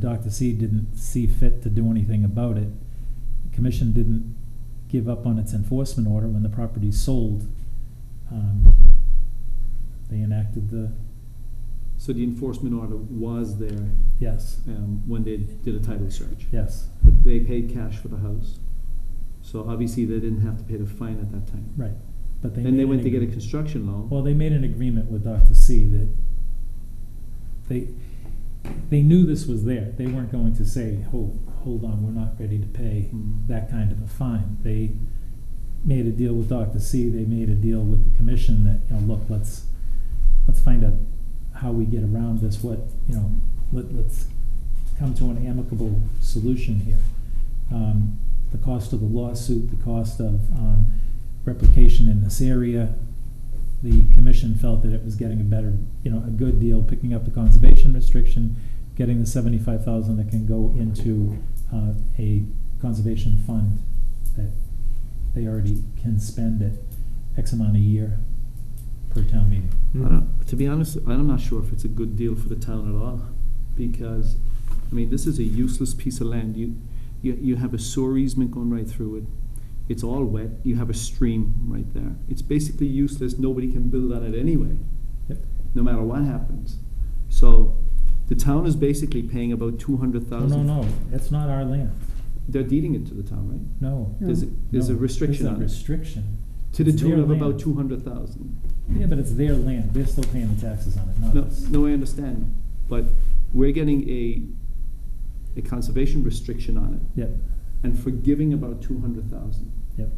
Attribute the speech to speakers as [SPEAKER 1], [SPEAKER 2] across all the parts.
[SPEAKER 1] Dr. C didn't see fit to do anything about it. The Commission didn't give up on its enforcement order when the property sold. Um, They enacted the,
[SPEAKER 2] So the enforcement order was there
[SPEAKER 1] yes,
[SPEAKER 2] um, when they did a title search.
[SPEAKER 1] yes,
[SPEAKER 2] But they paid cash for the house. So obviously, they didn't have to pay the fine at that time.
[SPEAKER 1] right. But they.
[SPEAKER 2] And
[SPEAKER 1] made
[SPEAKER 2] they
[SPEAKER 1] an
[SPEAKER 2] went to get a
[SPEAKER 1] agreement.
[SPEAKER 2] construction loan.
[SPEAKER 1] Well, they made an agreement with Dr. C that they, they knew this was there. They weren't going to say, oh, hold on, we're not ready to pay
[SPEAKER 2] Mm.
[SPEAKER 1] that kind of a fine. They made a deal with Dr. C, they made a deal with the commission that, you know, look, let's, let's find out how we get around this, what, you know, let, let's come to an amicable solution here. Um, the cost of the lawsuit, the cost of, um, replication in this area, the commission felt that it was getting a better, you know, a good deal, picking up the conservation restriction, getting the seventy-five thousand that can go into, uh, a conservation fund that they already can spend at X amount a year per town meeting.
[SPEAKER 2] I don't- To be honest, I'm not sure if it's a good deal for the town at all, because, I mean, this is a useless piece of land. You, you, you have a sewer easement going right through it. It's all wet. You have a stream right there. It's basically useless. Nobody can build on it anyway,
[SPEAKER 1] Yep.
[SPEAKER 2] no matter what happens. So the town is basically paying about two hundred
[SPEAKER 1] No,
[SPEAKER 2] thousand.
[SPEAKER 1] Oh, no, no, that's not our land,
[SPEAKER 2] They're deeding it to the town, right?
[SPEAKER 1] no.
[SPEAKER 2] There's, there's a
[SPEAKER 1] No,
[SPEAKER 2] restriction
[SPEAKER 1] there's
[SPEAKER 2] on
[SPEAKER 1] a
[SPEAKER 2] it,
[SPEAKER 1] restriction.
[SPEAKER 2] to the
[SPEAKER 1] It's their
[SPEAKER 2] tune of
[SPEAKER 1] land.
[SPEAKER 2] about two hundred thousand.
[SPEAKER 1] Yeah, but it's their land, they're still paying the taxes on it, not
[SPEAKER 2] No,
[SPEAKER 1] us.
[SPEAKER 2] no, I understand, but we're getting a, a conservation restriction on it
[SPEAKER 1] Yep,
[SPEAKER 2] and forgiving about two hundred thousand
[SPEAKER 1] yep,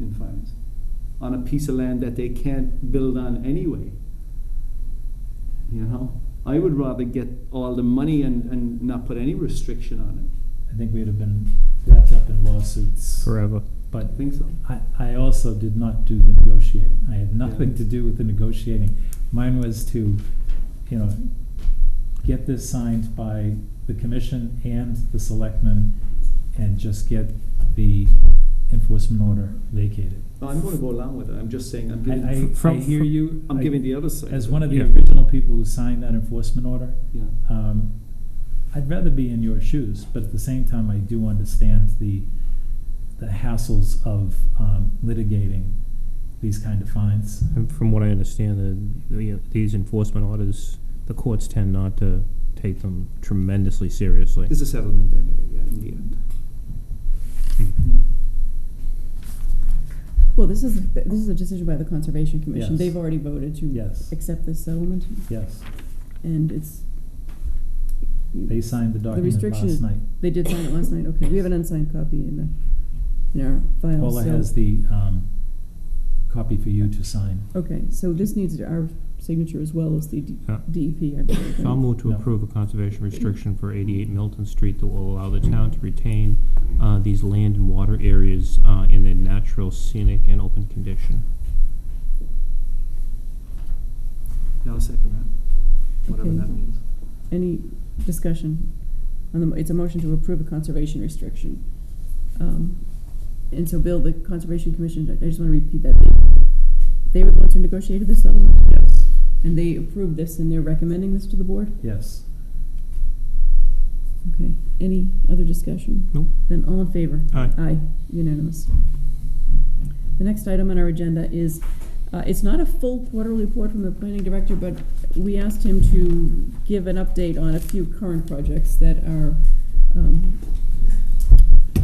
[SPEAKER 2] in fines on a piece of land that they can't build on anyway. You know, I would rather get all the money and, and not put any restriction on
[SPEAKER 1] I think we'd have been wrapped up in lawsuits.
[SPEAKER 3] Forever.
[SPEAKER 1] But
[SPEAKER 2] it. I think so.
[SPEAKER 1] I, I also did not do the negotiating. I had nothing to do with the negotiating. Mine was to, you know, get this signed by the commission and the selectmen and just get the enforcement order vacated.
[SPEAKER 2] No, I'm gonna go along with it. I'm just saying, I'm
[SPEAKER 1] I,
[SPEAKER 2] giving,
[SPEAKER 1] I, I
[SPEAKER 3] From-
[SPEAKER 1] hear you.
[SPEAKER 2] I'm
[SPEAKER 1] I-
[SPEAKER 2] giving the other side.
[SPEAKER 1] As one of the
[SPEAKER 3] Yeah.
[SPEAKER 1] original people who signed that enforcement order,
[SPEAKER 2] Yeah,
[SPEAKER 1] um, I'd rather be in your shoes, but at the same time, I do understand the, the hassles of um, litigating these kind of fines.
[SPEAKER 3] And from what I understand, the, the, these enforcement orders, the courts tend not to take them tremendously seriously.
[SPEAKER 2] there's a settlement anyway, yeah, in the end.
[SPEAKER 3] Hmm.
[SPEAKER 2] Yeah.
[SPEAKER 4] Well, this is, this is a decision by the Conservation Commission.
[SPEAKER 1] Yes.
[SPEAKER 4] They've already voted to
[SPEAKER 1] Yes,
[SPEAKER 4] accept this settlement,
[SPEAKER 1] yes.
[SPEAKER 4] and it's,
[SPEAKER 1] They signed the document
[SPEAKER 4] restriction
[SPEAKER 1] last
[SPEAKER 4] is-
[SPEAKER 1] night.
[SPEAKER 4] they did sign it last night, okay. We have an unsigned copy in the, in our files,
[SPEAKER 1] Paula
[SPEAKER 4] so-
[SPEAKER 1] has the um, copy for you to sign.
[SPEAKER 4] Okay, so this needs our signature as well as the D-
[SPEAKER 3] Yeah.
[SPEAKER 4] DEP, I believe.
[SPEAKER 3] So I'll move to
[SPEAKER 1] No.
[SPEAKER 3] approve a conservation restriction for 88 Milton Street that will allow the town to retain uh, these land and water areas uh, in their natural scenic and open condition.
[SPEAKER 2] Yeah, I'll second that, whatever
[SPEAKER 4] Okay.
[SPEAKER 2] that means.
[SPEAKER 4] Any discussion? on the mo- It's a motion to approve a conservation restriction. Um, And so, Bill, the Conservation Commission, I just want to repeat that. they- They were the ones who negotiated this settlement,
[SPEAKER 1] Yes.
[SPEAKER 4] and they approved this, and they're recommending this to the board?
[SPEAKER 1] Yes.
[SPEAKER 4] Okay, any other discussion?
[SPEAKER 3] Nope.
[SPEAKER 4] Then all in favor?
[SPEAKER 3] Aye.
[SPEAKER 4] Aye, unanimous. The next item on our agenda is, uh, it's not a full quarterly report from the planning director, but we asked him to give an update on a few current projects that are, um,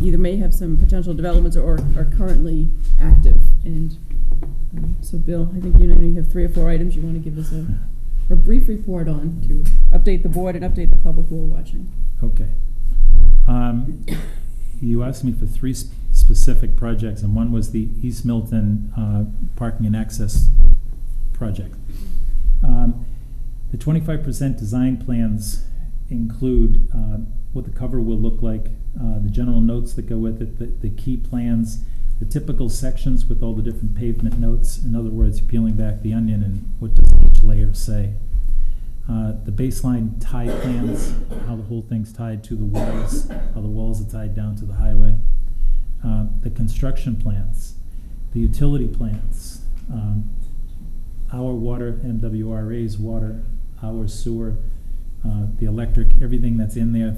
[SPEAKER 4] either may have some potential developments or are currently active. And, um, so Bill, I think you know, you have three or four items you wanna give us a, a brief report on to update the board and update the public who are watching.
[SPEAKER 1] Okay. Um, You asked me for three s- specific projects, and one was the East Milton uh, Parking and Access Project. Um, The twenty-five percent design plans include uh, what the cover will look like, uh, the general notes that go with it, the, the key plans, the typical sections with all the different pavement notes, in other words, peeling back the onion and what does each layer say uh, the baseline tie plans, how the whole thing's tied to the walls, how the walls are tied down to the highway, uh, the construction plans, the utility plans, um, our water, MWRA's water, our sewer, uh, the electric, everything that's in there